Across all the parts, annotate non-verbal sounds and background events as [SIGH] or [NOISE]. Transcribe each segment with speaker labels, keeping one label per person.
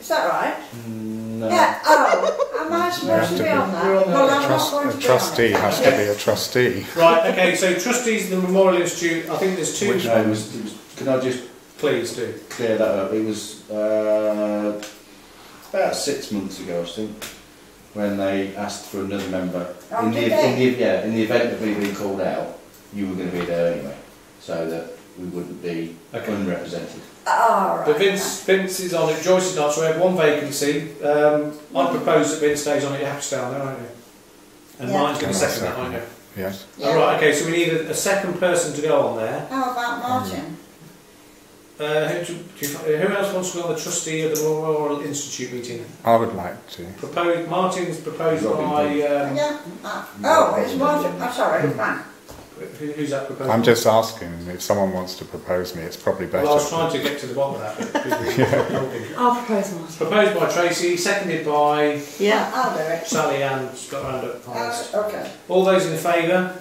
Speaker 1: Is that right?
Speaker 2: No.
Speaker 1: Yeah. Oh, am I
Speaker 3: Uh, [LAUGHS] You have
Speaker 1: supposed
Speaker 3: to
Speaker 1: to
Speaker 3: be-
Speaker 1: be on
Speaker 2: You're
Speaker 1: that?
Speaker 2: on
Speaker 1: Well,
Speaker 2: that.
Speaker 1: I'm not
Speaker 3: Trust,
Speaker 1: going to
Speaker 3: a
Speaker 1: be
Speaker 3: trustee
Speaker 1: on it.
Speaker 3: has to be a trustee.
Speaker 4: Right, okay, so trustees of the Memorial Institute, I think there's two.
Speaker 2: Which no, it was, it was, can I just
Speaker 4: Please do.
Speaker 2: clear that up? It was uh, about six months ago, I think, when they asked for another member.
Speaker 1: Oh,
Speaker 2: in, the,
Speaker 1: did
Speaker 2: in
Speaker 1: they?
Speaker 2: the yeah, in the event of me being called out, you were going to be there anyway, so that we wouldn't be
Speaker 4: Okay.
Speaker 2: unrepresented.
Speaker 1: All right.
Speaker 4: But Vince, Vince is on it, Joyce is not, so we have one vacancy. Um, I propose that Vince stays on it, you have to stay on there, aren't you? And
Speaker 1: Yeah.
Speaker 4: mine's going to
Speaker 3: Can I
Speaker 4: second that, aren't you?
Speaker 3: Yes.
Speaker 1: Yeah.
Speaker 4: All right, okay, so we need a, a second person to go on there.
Speaker 1: How about Martin?
Speaker 4: Uh, who, do, do you, who else wants to go on the trustee of the Memorial Institute meeting?
Speaker 3: I would like to.
Speaker 4: Proposed, Martin's proposed
Speaker 2: Robin
Speaker 4: by, um,
Speaker 1: Yeah. Ah, Oh, it's Martin. I'm sorry. Right.
Speaker 4: who, who's that proposed?
Speaker 3: I'm just asking if someone wants to propose me, it's probably better.
Speaker 4: Well, I was trying to get to the bottom of that. But
Speaker 5: I'll propose Martin.
Speaker 4: Proposed by Tracy, seconded by
Speaker 5: Yeah.
Speaker 1: I'll do it.
Speaker 4: Sally and Scott Roundup.
Speaker 1: Uh,
Speaker 4: finalist.
Speaker 1: okay.
Speaker 4: All those in favour?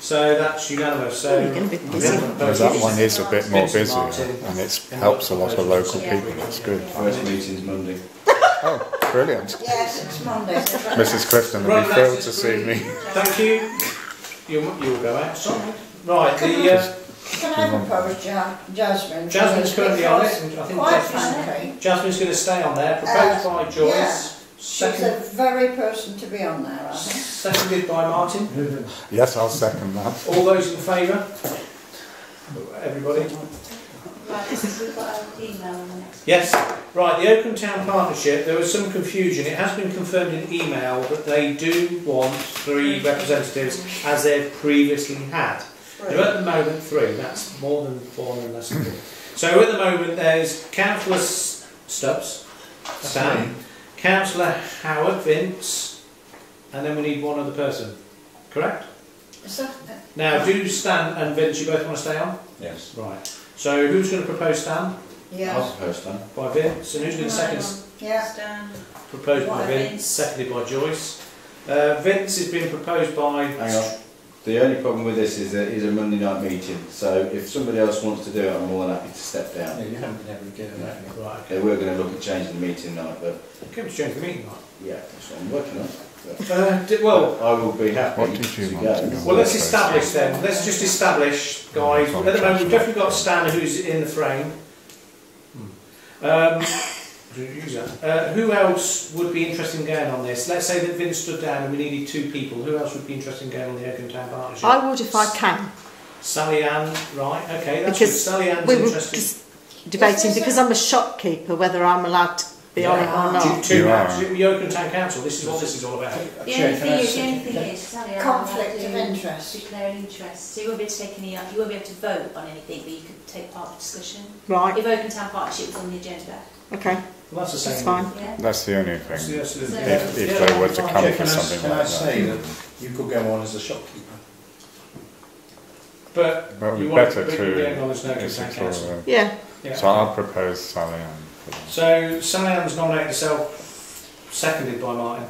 Speaker 4: So that's unanimous. So
Speaker 5: Oh, you're going to be busy.
Speaker 3: Well, that one is a bit more
Speaker 4: Vincent
Speaker 3: busy
Speaker 4: Martin.
Speaker 3: and it helps a lot of local people. It's good.
Speaker 1: Oh.
Speaker 2: First meeting's Monday.
Speaker 3: Oh, brilliant.
Speaker 1: Yes, it's
Speaker 3: [LAUGHS]
Speaker 1: Monday.
Speaker 3: Mrs. Clifton would
Speaker 4: Right,
Speaker 3: be
Speaker 4: that's
Speaker 3: thrilled to
Speaker 4: just
Speaker 3: see
Speaker 4: brilliant.
Speaker 3: me.
Speaker 4: Thank you. You'll, you'll go out. Sorry. Right, the, uh,
Speaker 1: Can I propose ja- Jasmine?
Speaker 4: Jasmine's currently on it.
Speaker 1: Because
Speaker 4: and I think
Speaker 1: Quite
Speaker 4: Jasmine's,
Speaker 1: frankly,
Speaker 4: Jasmine's going to stay on there. Proposed
Speaker 1: Uh,
Speaker 4: by Joyce.
Speaker 1: yeah. she's
Speaker 4: Second,
Speaker 1: the very person to be on there, I think.
Speaker 4: seconded by Martin.
Speaker 3: [LAUGHS] Yes, I'll second that.
Speaker 4: All those in favour? Everybody? Yes, right, the Oakham Town Partnership, there was some confusion. It has been confirmed in email that they do want three representatives as they've previously had. They're at the moment three, that's more than four and less than three. So at the moment there's councillor S- Stubbs, Stan, councillor Howard, Vince, and then we need one other person, correct?
Speaker 1: Is that, uh,
Speaker 4: Now, do Stan and Vince, you both want to stay on?
Speaker 2: Yes.
Speaker 4: Right, so who's going to propose Stan?
Speaker 2: I was
Speaker 1: yeah,
Speaker 2: the first time.
Speaker 4: By Vince, and who's going to second?
Speaker 1: yeah.
Speaker 4: Proposed by
Speaker 5: By
Speaker 4: Vince,
Speaker 5: Vince.
Speaker 4: seconded by Joyce. Uh, Vince has been proposed by.
Speaker 2: Hang on. The only problem with this is that it is a Monday night meeting, so if somebody else wants to do it, I'm more than happy to step down.
Speaker 6: you haven't been able to get
Speaker 2: that.
Speaker 4: Right, okay.
Speaker 2: They were going to look at changing the meeting night, but
Speaker 4: Can we change the meeting now?
Speaker 2: yeah, that's what I'm working on. But
Speaker 4: Uh, d- well,
Speaker 2: I will be happy
Speaker 3: What did you
Speaker 2: to
Speaker 3: want
Speaker 2: go.
Speaker 3: to go?
Speaker 4: well, let's establish then. Let's just establish, guys. At the moment, we've definitely got Stan who's in the frame. Um, uh, who else would be interested in going on this? Let's say that Vince stood down and we needed two people. Who else would be interested in going on the Oakham Town Partnership?
Speaker 5: I would if I can.
Speaker 4: Sally Ann, right, okay, that's good.
Speaker 5: Because
Speaker 4: Sally Ann's
Speaker 5: We were
Speaker 4: interested.
Speaker 5: just debating because I'm a shopkeeper whether I'm allowed to be on it or
Speaker 4: Due
Speaker 5: not.
Speaker 4: to
Speaker 3: You are.
Speaker 4: Oakham- the Oakham Town Council, this is what this is all about.
Speaker 7: The only thing is, the only thing is, Sally, I
Speaker 1: Conflict of
Speaker 7: have to
Speaker 1: interest.
Speaker 7: declare an interest, so you won't be able to take any, you won't be able to vote on anything, but you could take part in discussion.
Speaker 5: Right.
Speaker 7: If Oakham Town Partnership was on the agenda,
Speaker 5: Okay.
Speaker 4: Well, that's the same.
Speaker 5: That's fine.
Speaker 7: yeah?
Speaker 3: That's the only
Speaker 4: So,
Speaker 3: thing.
Speaker 4: yes, it is.
Speaker 7: So-
Speaker 3: If, if
Speaker 4: Yeah.
Speaker 3: they were to come
Speaker 6: Yeah,
Speaker 3: for
Speaker 6: can I,
Speaker 3: something
Speaker 6: can I
Speaker 3: like
Speaker 6: say that
Speaker 3: that.
Speaker 6: you could go on as a shopkeeper?
Speaker 4: But
Speaker 3: Well,
Speaker 4: you
Speaker 3: it'd be
Speaker 4: want
Speaker 3: better
Speaker 4: to
Speaker 3: to.
Speaker 4: be acknowledged no
Speaker 3: it's
Speaker 4: consent
Speaker 3: a sort
Speaker 4: council.
Speaker 3: of-
Speaker 5: Yeah.
Speaker 4: Yeah.
Speaker 3: uh, So I'll propose Sally Ann. for that.
Speaker 4: So Sally Ann's nominated herself, seconded by Martin.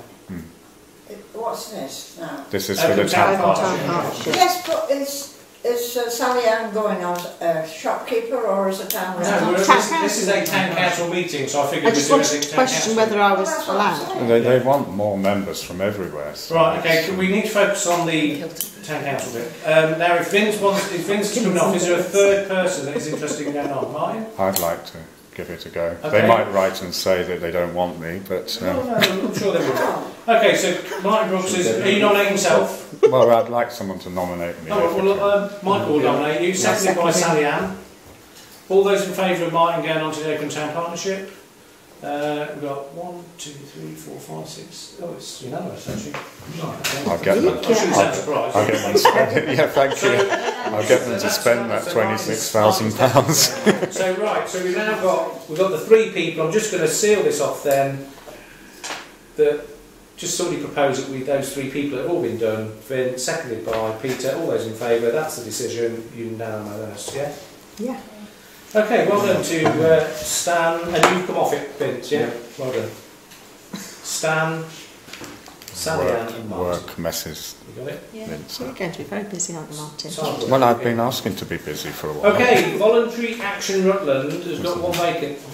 Speaker 1: What's this now?
Speaker 3: This is for
Speaker 4: Oakham
Speaker 3: the town
Speaker 4: Town
Speaker 3: partner.
Speaker 4: Partnership.
Speaker 5: Partnership.
Speaker 1: Yes, but is, is uh, Sally Ann going as a shopkeeper or as a town
Speaker 4: No,
Speaker 1: rep?
Speaker 4: we're,
Speaker 5: Town
Speaker 4: this, this is a
Speaker 5: council.
Speaker 4: town council meeting, so I figured
Speaker 5: I
Speaker 4: we'd
Speaker 5: just
Speaker 4: do
Speaker 5: wanted
Speaker 4: everything
Speaker 5: to
Speaker 4: town
Speaker 5: question whether
Speaker 4: council.
Speaker 5: I was
Speaker 1: That's what I'm
Speaker 5: allowed.
Speaker 1: saying.
Speaker 3: They, they want more members from everywhere. So
Speaker 4: Right, okay,
Speaker 3: it's-
Speaker 4: can, we need to focus on the town council bit. Um, now, if Vince wants, if Vince is coming off, is there a third person that is interested in going on? Martin?
Speaker 3: um, I'd like to give it a go.
Speaker 4: Okay.
Speaker 3: They might write and say that they don't want me, but
Speaker 4: Oh, No,
Speaker 3: um,
Speaker 4: no, I'm sure they will. Okay, so Martin Brooks is, are you nominating yourself?
Speaker 3: well, I'd like someone to nominate me.
Speaker 4: No,
Speaker 3: if they
Speaker 4: well,
Speaker 3: can.
Speaker 4: uh, Michael will nominate you, seconded by Sally Ann. All those in favour of Martin going on to the Oakham Town Partnership? Uh, we've got one, two, three, four, five, six. Oh, it's unanimous actually. Right, okay.
Speaker 3: I'll get them.
Speaker 4: I'm sure you sound surprised.
Speaker 3: I'll get them to spend. [LAUGHS] yeah, thank
Speaker 4: So-
Speaker 3: you. I'll get them to spend that twenty-six thousand pounds. [LAUGHS]
Speaker 4: So right, so we've now got we've got the three people. I'm just going to seal this off then. That just somebody propose that we those three people have all been done. Been seconded by Peter. All those in favour? That's the decision. Unanimous. Yeah.
Speaker 5: Yeah.
Speaker 4: Okay. Well done to uh, Stan, and you've come off it, Vince. Yeah. Well done. Stan, Sally, Ann,
Speaker 3: Work,
Speaker 4: and Martin.
Speaker 3: work messes.
Speaker 4: You got it.
Speaker 3: Vince.
Speaker 5: You're going to be very busy, aren't you, Martin?
Speaker 4: It's hard work.
Speaker 3: Well, I've been asking to be busy for a while.
Speaker 4: Okay. Voluntary Action Rutland has got one vacant.